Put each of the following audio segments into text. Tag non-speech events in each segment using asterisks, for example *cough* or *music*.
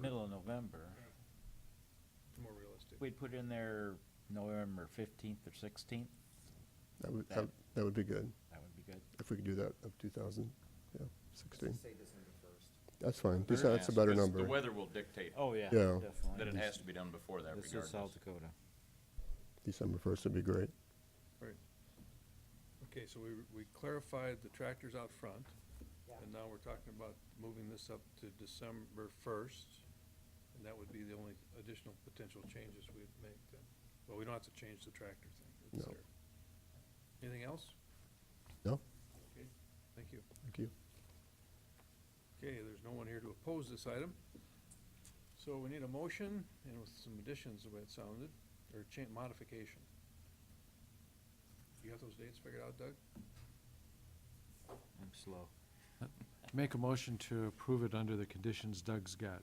middle of November. More realistic. We'd put in there November fifteenth or sixteenth, That would, That- that that would be good, that would be good. if we could do that of 2000, yeah, 16. Say December first. That's fine, They're That's- gonna that's a ask, better 'cause number. The weather will dictate Oh, yeah, Yeah. definitely. that it has to be done before that This is South *laughs* regardless. Dakota. December 1st would be great. Right. Okay, so we, we clarified the tractors out front, Yeah. and now we're talking about moving this up to December first. And that would be the only additional potential changes we'd make then. Well, we don't have to change the tractor thing. It's No. there. Anything else? No? Okay, thank you. Thank you. Okay, there's no one here to oppose this item. So we need a motion and with some additions, the way it sounded, or cha- modification. You have those dates figured out, Doug? I'm slow. Make a motion to approve it under the conditions Doug's got.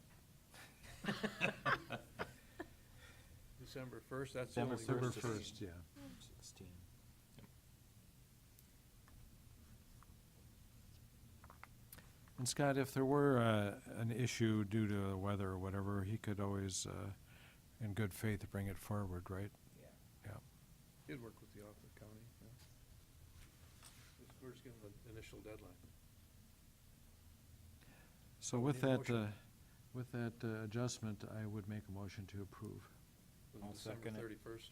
December first, that's the December only. October First, first, yeah. Sixteen. And Scott, if there were uh, an issue due to the weather or whatever, he could always, uh, in good faith, bring it forward, right? Yeah. Yeah. Did work with the Oakland County, yeah. Just- We're just giving the initial deadline. So we with need a that, motion. uh, with that uh, adjustment, I would make a motion to approve. with I'll second it. December thirty-first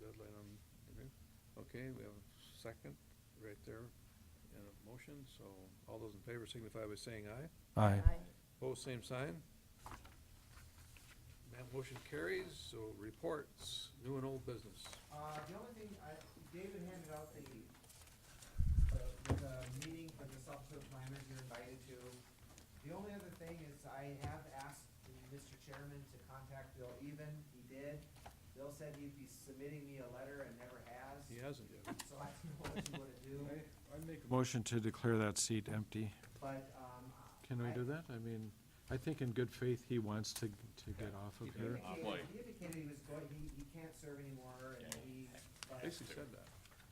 deadline on, the new- okay, we have a second right there and a motion, so all those in favor signify by saying aye. Aye. Both same sign. That motion carries, so reports, new and old business. Uh, the only thing, I, David handed out the, the, the meeting for the self-serve planners you're invited to. The only other thing is I have asked the Mr. Chairman to contact Bill Even, he did. Bill said he'd be submitting me a letter and never has, He hasn't yet. so I don't know what you *laughs* wanna do, Motion to declare that seat empty. but, um. Can we I- do that? I mean, I think in good faith, he wants to, to get off of Yeah. here. He indicated, Wait. he indicated he was going, he, he can't serve anymore and he, but I Basically said that.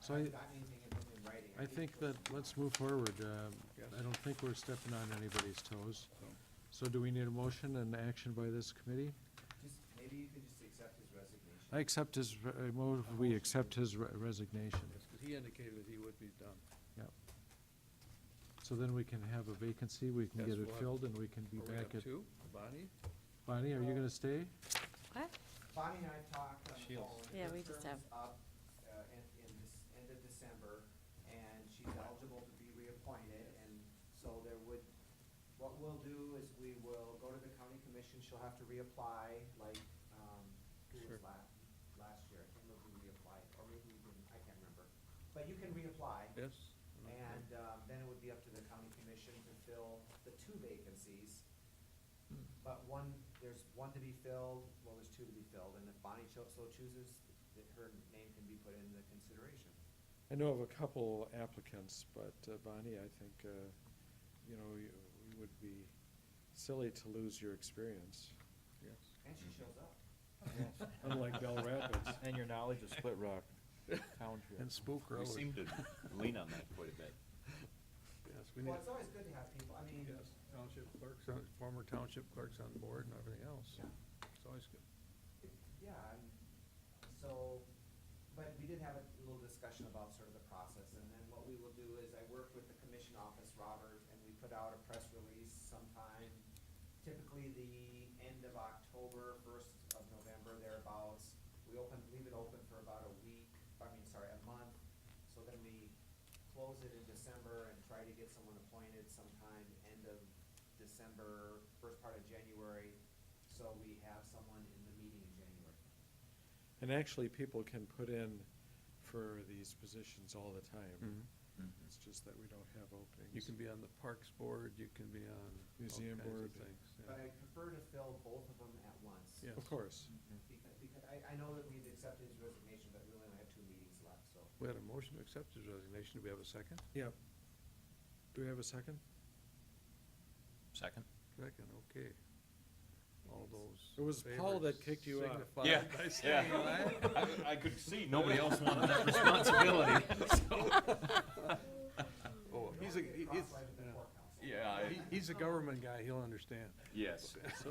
So I- haven't gotten anything in writing. I think that, let's move forward. Um, Yes. I don't think we're stepping on anybody's toes. No. So do we need a motion and action by this committee? Just, maybe you could just accept his resignation. I accept his, re- I move, we accept his re- resignation. Yes, 'cause he indicated that he would be done. So then we can have a vacancy, we can Yes, get we'll it have- filled, and we can be Or we have back at. two, Bonnie? Bonnie, are you gonna stay? What? Bonnie and I talked on the Shields. phone. Yeah, Her we just term is Up, uh, in, in this, end of December, and she's eligible to be reappointed, and so there would, what we'll do is we will go to the county commission, she'll have to reapply, like, um, who Sure. was last, last year, I can't remember who reapplied, or maybe we didn't, I can't remember. But you can reapply, Yes? and, um, then it would be up to the county commission to fill the two vacancies. But one, there's one to be filled, well, there's two to be filled, and if Bonnie cho- so chooses, that her name can be put in the consideration. I know of a couple applicants, but uh, Bonnie, I think, uh, you know, you you would be silly to lose your experience, Yes. And she shows up. unlike Bell Rapids. And your knowledge of Split *laughs* Rock Township. And Spook We Road. seem to lean on that quite a bit. Yes, we need, Well, it's always good to have people, I mean, yes, township clerks, on- former township clerks on board and everything else. It's always good. yeah, and so, but we did have a little discussion about sort of the process, and then what we will do is I work with the commission office, Robert, and we put out a press release sometime, typically the end of October, first of November, thereabouts. We open, leave it open for about a week, I mean, sorry, a month, so then we close it in December and try to get someone appointed sometime end of December, first part of January, so we have someone in the meeting in January. And actually, people can put in for these positions all the time. It's just that we don't have openings. Mm-hmm. You can be on the Parks Board, you can be on. all Museum kinds of board. Things, yeah. But I prefer to fill both of them at once. Yeah. Of course. Because, because I, I know that we've accepted his resignation, but we only have two meetings left, so. We had a motion to accept his resignation. Do we have a second? Yep. Do we have a second? Second? Second, okay. All those. It was in Paul favor that kicked you out. signify Yeah, *laughs* by yeah. saying aye. *laughs* I, I could see nobody else wanted that responsibility, so. Oh, *laughs* We *laughs* don't he's a, have to get he's, Oh, cross-eyed with the court counsel. Yeah, I- he- he's a government guy. He'll understand. yes.